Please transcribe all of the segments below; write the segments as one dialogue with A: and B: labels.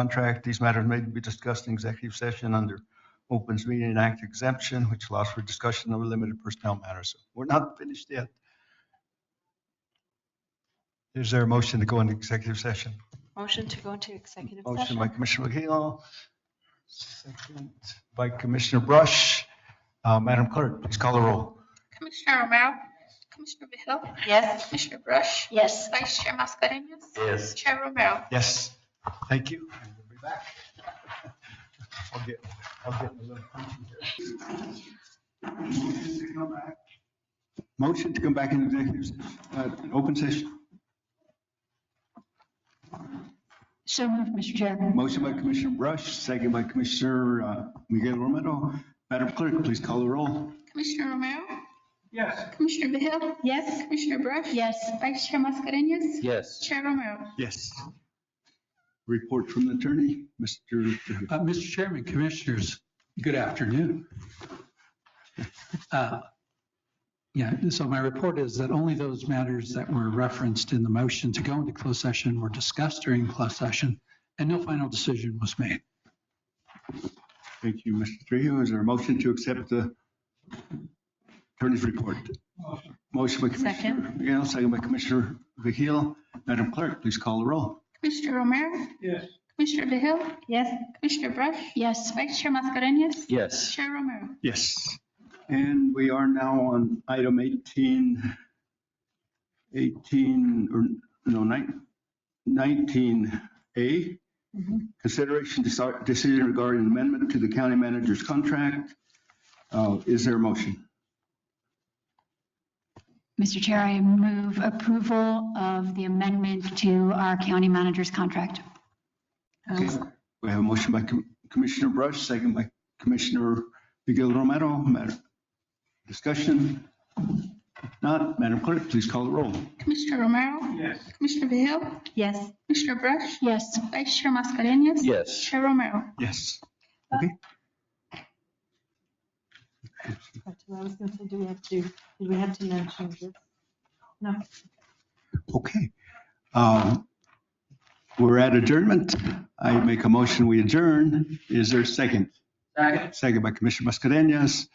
A: contract. These matters may be discussed in executive session under Opens Meeting Act exemption, which allows for discussion of limited personnel matters. We're not finished yet. Is there a motion to go into executive session?
B: Motion to go into executive
A: Motion by
B: session.
A: Commissioner McKeel, second by Commissioner Brush. Uh, Madam Clerk, please call the roll.
C: Commissioner Romero? Commissioner Vehil?
B: Yes.
C: Commissioner Brush?
B: Yes.
C: Vice Chair Mascarenhas?
D: Yes.
C: Chair Romero?
A: Yes, thank you. and We'll be back. I'll get, I'll get a little punchy here. Motion to come back in executive, uh, open session.
B: So moved, Mr. Chair.
A: Motion by Commissioner Brush, second by Commissioner uh, Miguel Romero. Madam Clerk, please call the roll.
C: Commissioner Romero?
A: Yes.
C: Commissioner Vehil?
B: Yes.
C: Commissioner Brush?
B: Yes.
C: Vice Chair Mascarenhas?
D: Yes.
C: Chair Romero?
A: Yes. Report from the attorney, Mr. Trujillo.
E: Uh, Mr. Chairman, Commissioners, good afternoon. Uh, Yeah, so my report is that only those matters that were referenced in the motion to go into closed session were discussed during closed session, and no final decision was made.
A: Thank you, Mr. Trujillo. Is there a motion to accept the attorney's report? Motion by Commissioner McGill, second by Commissioner Vehil. Madam Clerk, please call the roll.
C: Commissioner Romero?
E: Yes.
C: Commissioner Vehil?
B: Yes.
C: Commissioner Brush?
B: Yes.
C: Vice Chair Mascarenhas?
D: Yes.
C: Chair Romero?
A: Yes. And we are now on item 18, 18, or no, nine- 19A. Consideration deci- decision regarding amendment to the county manager's contract. Uh, Is there a motion?
F: Mr. Chair, I move approval of the amendment to our county manager's contract.
A: Okay, we have a motion by Com- Commissioner Brush, second by Commissioner Miguel Romero. Madam- Discussion? Not, Madam Clerk, please call the roll.
C: Commissioner Romero? Yes. Commissioner Vehil?
B: Yes.
C: Commissioner Brush?
F: Yes.
C: Vice Chair Mascarenhas?
D: Yes.
C: Chair Romero?
A: Yes. Okay,
B: That's what I was gonna say. Do we have to, do we have to mention this? No.
A: okay. Um, We're at adjournment. I make a motion, we adjourn. Is there a second? Second. Second by Commissioner Mascarenhas.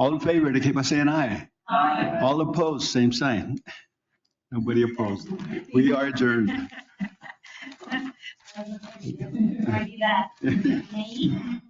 A: All in favor, indicate by saying aye. Aye. All opposed, same sign. Nobody opposed. We are adjourned.
F: Already that.